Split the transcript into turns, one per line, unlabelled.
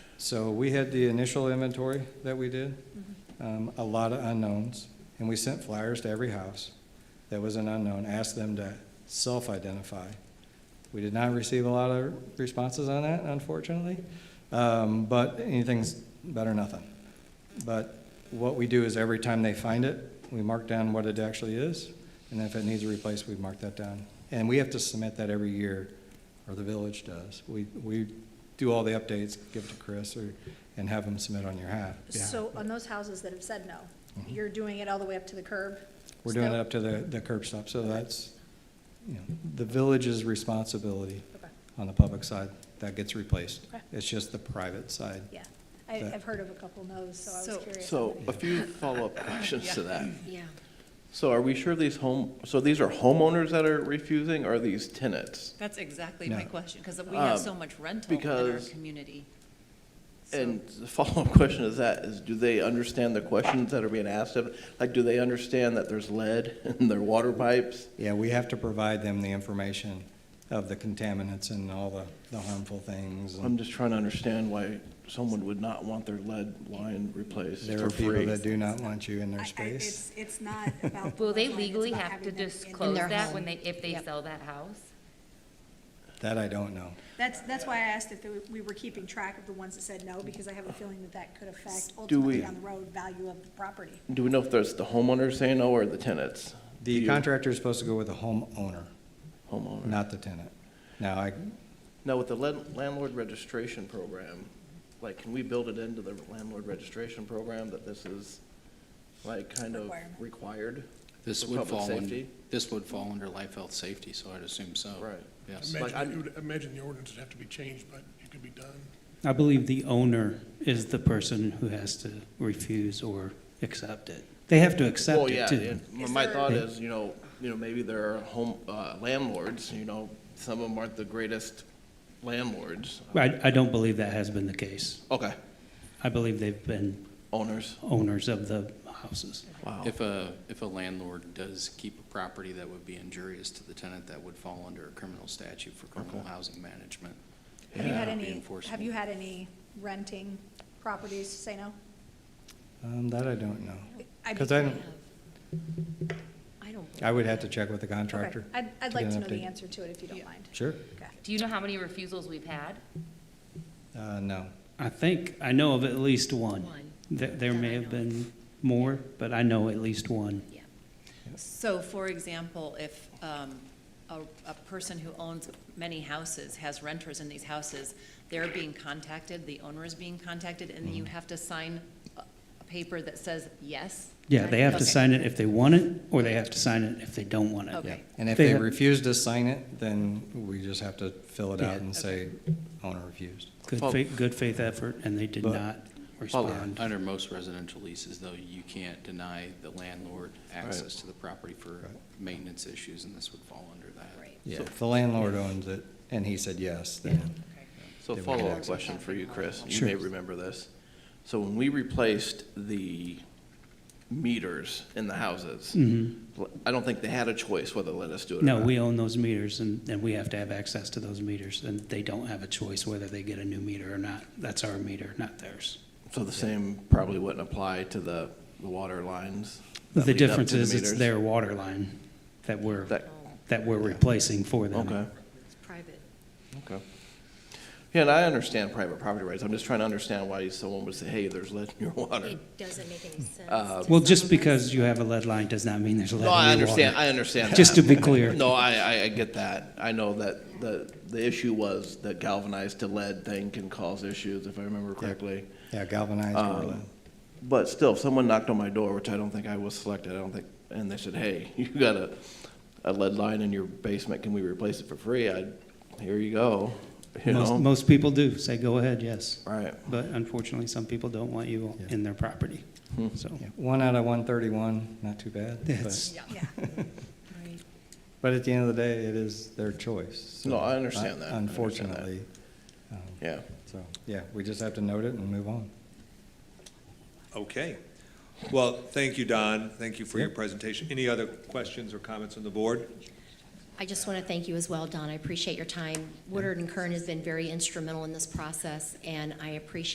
So we had the initial inventory that we did, um, a lot of unknowns, and we sent flyers to every house that was an unknown, asked them to self-identify. We did not receive a lot of responses on that, unfortunately, um, but anything's better than nothing. But what we do is every time they find it, we mark down what it actually is, and if it needs a replace, we mark that down. And we have to submit that every year, or the village does. We, we do all the updates, give it to Chris, or, and have him submit on your half. behalf.
So on those houses that have said no, you're doing it all the way up to the curb?
Mm-hmm. We're doing it
still?
up to the, the curb stop, so that's, you know, the village's responsibility
Okay,
on the public side, that gets replaced.
Okay.
It's just the private side.
yeah. I,
That-
I've heard of a couple no's, so I
So-
was curious.
So a few follow-up questions to that.
Yeah.
So are we sure these home, so these are homeowners that are refusing, or are these tenants?
That's exactly my
No.
question, because we have
Um,
so much rental in our
because-
community. So-
And the follow-up question is that, is do they understand the questions that are being asked of? Like, do they understand that there's lead in their water pipes?
Yeah, we have to provide them the information of the contaminants and all the, the harmful things. and-
I'm just trying to understand why someone would not want their lead line replaced
There are
for
people
free.
that do not want you in
I-
their
I-
space.
It's, it's not about.
Will they
bloodline, it's
legally
about
have to
having them in-
disclose
their
that
home.
when they, if they
Yep.
sell that house?
That I don't know.
That's, that's why I asked if there were- we were keeping track of the ones that said no, because I have a feeling that that could affect ultimately
we-
on the road value of the property.
Do we know if that's the homeowner saying no, or the tenants? Do
The
you-
contractor is supposed to go with the homeowner,
Homeowner.
not the tenant. Now, I,
Now, with the land- landlord registration program, like, can we build it into the landlord registration program that this is, like, kind of
Requirement.
required?
This
For
would
public
fall,
safety?
in- this would fall under life, health, safety, so I'd assume so.
Right.
Yes.
Like,
Imagine,
I'm-
you would imagine the ordinance would have to be changed, but it could be done.
I believe the owner is the person who has to refuse or accept it. They have to accept
Well,
it
yeah,
too.
and my-
Is
my
there-
thought is, you know, you know, maybe there are home, uh, landlords, you know, some of them aren't the greatest landlords.
I, I don't believe that has been the case.
Okay,
I believe they've been
owners.
owners of the houses.
Wow.
If a, if a landlord does keep a property that would be injurious to the tenant, that would fall under a criminal statute for criminal housing management.
Have you
Yeah.
had
Be
any, have
enforceable.
you had any renting properties say no?
um, that I don't know.
I'd be
'Cause I don't,
Yeah. I don't.
I would have to check with the
Okay.
contractor.
I'd, I'd
to
like
get
to
an
know the
update.
answer to it if you don't mind.
Sure.
Okay.
Do you know how many refusals we've had?
Uh, no.
I think, I know of at least one.
One.
There, there
That
may
I
have
know
been more, but I know at least one.
Yeah. So for example, if um, a, a person who owns many houses, has renters in these houses, they're being contacted, the owner is being contacted, and
Mm-hmm.
you have to sign a a paper that says yes?
Yeah, they have to
Okay.
sign it if they want it, or they have to sign it if they don't want it.
Okay.
Yeah. And if
They
they
have-
refuse to sign it, then we just have to fill it
Yeah.
out and say owner refused.
Good faith, good faith effort, and they did
But-
not
Follow-
respond.
Under most residential leases, though, you can't deny the landlord access to the property for maintenance issues, and this would fall under that.
Right.
Yeah,
So-
if the landlord owns it and he said yes, then
So
They would
follow-up
access.
question for you, Chris. You
Sure.
may remember this. So when we replaced the meters in the houses, I don't think they had a choice whether to let us do it or
Mm-hmm. No,
not.
we own those meters, and, and we have to have access to those meters, and they don't have a choice whether they get a new meter or not. That's our meter, not theirs.
So the same probably wouldn't apply to the, the water lines? that
The
lead up to
difference is it's
meters?
their water line that we're,
That-
that we're replacing for them.
Okay,
It's private.
okay. Yeah, and I understand private property rights. I'm just trying to understand why someone would say, hey, there's lead in your water.
doesn't make any sense.
Uh,
Well, just because you have a lead line does not mean there's a lead
No,
in your water.
I understand, I understand that.
Just to be clear.
No, I, I, I get that. I know that the, the issue was that galvanized to lead thing can cause issues, if I remember correctly.
Yeah, galvanized
Um,
or lead.
But still, if someone knocked on my door, which I don't think I was selected, I don't think, and they said, hey, you got a, a lead line in your basement, can we replace it for free? I'd, here you go, you
Most,
know?
most people do say, go ahead, yes.
Right.
But unfortunately, some people don't want you
Yeah.
in their property,
Hmm.
so.
Yeah, One out of one thirty-one, not too bad.
That's-
But,
Yeah.
but at the end of the day, it is their choice. so
No, I understand that. I understand that.
Unfortunately. um,
Yeah.
So, yeah, we just have to note it and move on.
Okay. Well, thank you, Don. Thank you for your presentation. Any other questions or comments on the board?
I just want to thank you as well, Don. I appreciate your time. Woodard and Kern has been very instrumental in this process, and I appreciate